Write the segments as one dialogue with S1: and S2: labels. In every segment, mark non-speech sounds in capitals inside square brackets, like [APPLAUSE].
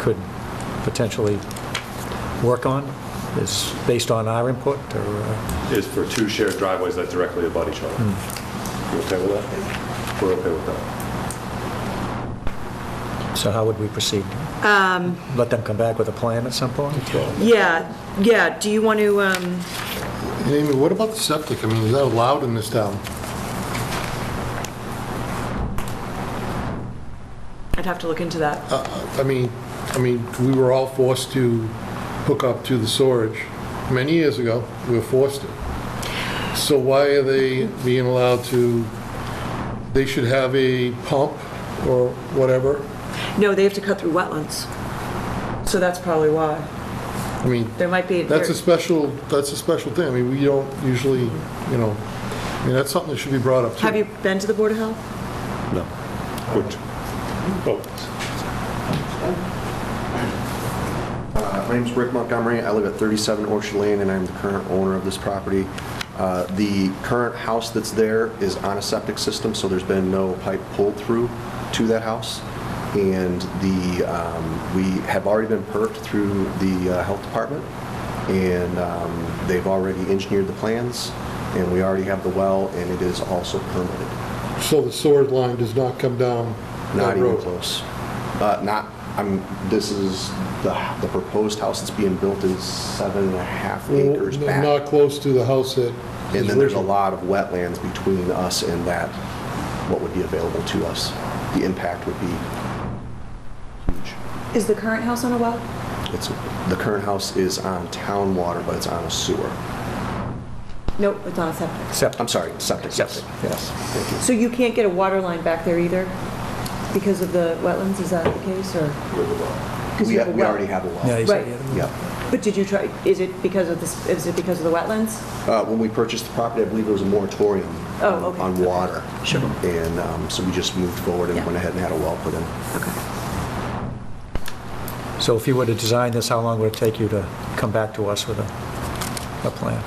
S1: could potentially work on, is based on our input, or, uh,
S2: is for two shared driveways that directly abut each other. You okay with that? We're okay with that.
S1: so how would we proceed? Let them come back with a plan at some point?
S3: Yeah, yeah, do you want to, um,
S4: Amy, what about the septic? I mean, is that allowed in this town?
S3: I'd have to look into that.
S5: Uh.
S4: I mean, I mean, we were all forced to hook up to the storage many years ago. We were forced to. So why are they being allowed to, they should have a pump or whatever?
S3: No, they have to cut through wetlands. So that's probably why.
S4: I mean,
S3: There might be,
S4: that's a
S3: there-
S4: special, that's a special thing. I mean, we don't usually, you know, I mean, that's something that should be brought up too.
S3: have you been to the Board of Health?
S2: No. Which, oh,
S5: Uh, My name's Rick Montgomery. I live at 37 Orchard Lane, and I'm the current owner of this property. Uh, The current house that's there is on a septic system, so there's been no pipe pulled through to that house. And the, um, we have already been perked through the uh, health department, and um, they've already engineered the plans, and we already have the well, and it is also permitted.
S4: So the storage line does not come down
S5: Not
S4: that
S5: even
S4: road?
S5: close. Uh, Not, I'm, this is, the the proposed house that's being built is seven and a half
S4: Well,
S5: acres
S4: n-
S5: back.
S4: Not close to the house that
S5: And
S4: is
S5: then there's a
S4: original.
S5: lot of wetlands between us and that, what would be available to us. The impact would be huge.
S3: Is the current house on a well?
S5: It's, the current house is on town water, but it's on a sewer.
S3: Nope, it's on a septic.
S1: Except,
S5: I'm sorry, septic.
S1: Yes,
S5: yes. Thank you.
S3: So you can't get a water line back there either because of the wetlands, is that the case, or? Because
S5: We
S3: you have a
S5: we
S3: well.
S5: already have a
S1: yeah,
S5: well.
S1: you said,
S3: Right.
S1: yeah.
S5: Yep.
S3: But did you try, is it because of this, is it because of the wetlands?
S5: Uh, When we purchased the property, I believe there was a moratorium
S3: Oh,
S5: on-
S3: okay.
S5: on water. Sure. And um, so we just moved forward and
S3: Yeah.
S5: went ahead and had a well put in.
S1: so if you were to design this, how long would it take you to come back to us with a, a plan?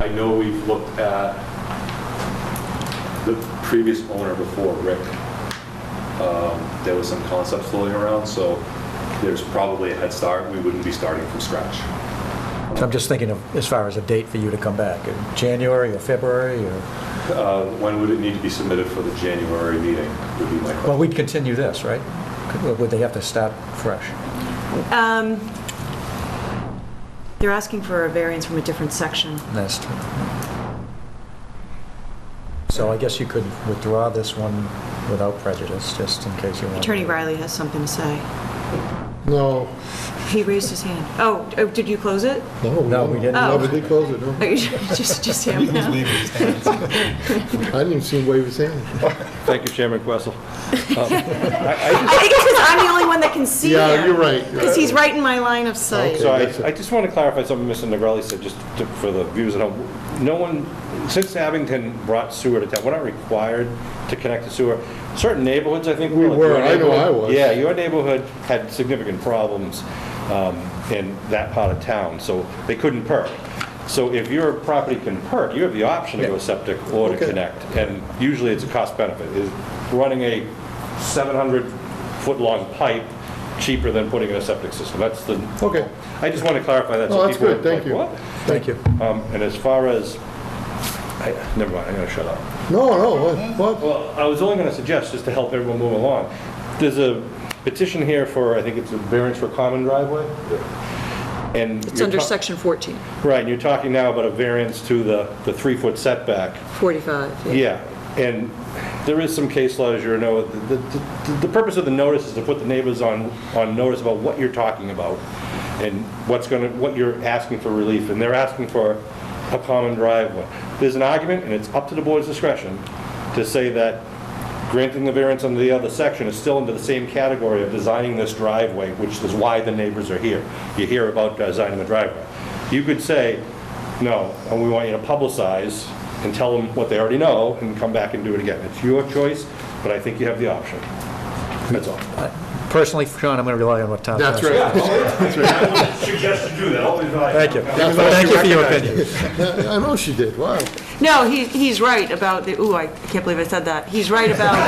S2: I know we've looked at the previous owner before, Rick. Um, There was some concepts floating around, so there's probably a head start. We wouldn't be starting from scratch.
S1: So I'm just thinking of, as far as a date for you to come back, in January or February, or,
S2: Uh, When would it need to be submitted for the January meeting would be my question.
S1: well, we'd continue this, right? Could- or Would they have to start fresh?
S3: They're asking for a variance from a different section.
S1: That's true. So I guess you could withdraw this one without prejudice, just in case you want.
S3: Attorney Riley has something to say.
S4: No,
S3: He raised his hand. Oh, oh, did you close it?
S4: no.
S1: No, we didn't.
S4: No, but they closed it, no.
S3: Are you- [LAUGHS] Just, just him now?
S4: I didn't even see him wave his hand.
S6: Thank you, Chairman Questle.
S3: I think it's because I'm the only one that can see him.
S4: Yeah, you're right.
S3: Because he's right in my line of sight.
S6: So I, I just want to clarify something Mr. Negrelli said, just to- for the viewers at home. No one, since Abington brought sewer to town, we're not required to connect to sewer. Certain neighborhoods, I think.
S4: We
S6: like your
S4: were, I know I
S6: neighborhood-
S4: was.
S6: Yeah, your neighborhood had significant problems um, in that part of town, so they couldn't perk. So if your property can perk, you have the option to go
S1: Yeah.
S6: septic or to
S4: Okay.
S6: connect. And usually it's a cost benefit. Is running a 700-foot-long pipe cheaper than putting in a septic system? That's the,
S4: Okay.
S6: I just want to clarify that. so
S4: No, that's
S6: people
S4: good.
S6: aren't
S4: Thank
S6: like,
S1: Thank you.
S6: "What?" Um, And as far as, I, never mind, I'm going to shut up.
S4: No, no, what- what?
S6: Well, I was only going to suggest, just to help everyone move along, there's a petition here for, I think it's a variance for common driveway? and
S3: It's
S6: you're
S3: under
S6: ta-
S3: section 14,
S6: Right, and you're talking now about a variance to the, the three-foot setback.
S3: 45.
S6: Yeah, and there is some case law, as you know, the, the, the purpose of the notice is to put the neighbors on, on notice about what you're talking about and what's gonna, what you're asking for relief, and they're asking for a common driveway. There's an argument, and it's up to the board's discretion, to say that granting the variance under the other section is still under the same category of designing this driveway, which is why the neighbors are here. You hear about designing the driveway. You could say, no, and we want you to publicize and tell them what they already know and come back and do it again. It's your choice, but I think you have the option. That's
S2: [LAUGHS]
S6: all.
S1: Personally, Sean, I'm going to rely on what Tom says.
S4: That's right.
S2: Suggest you do that, always
S1: Thank you. Thank you for your opinion.
S4: I know she did, wow.
S3: No, he, he's right about the, ooh, I can't believe I said that. He's right about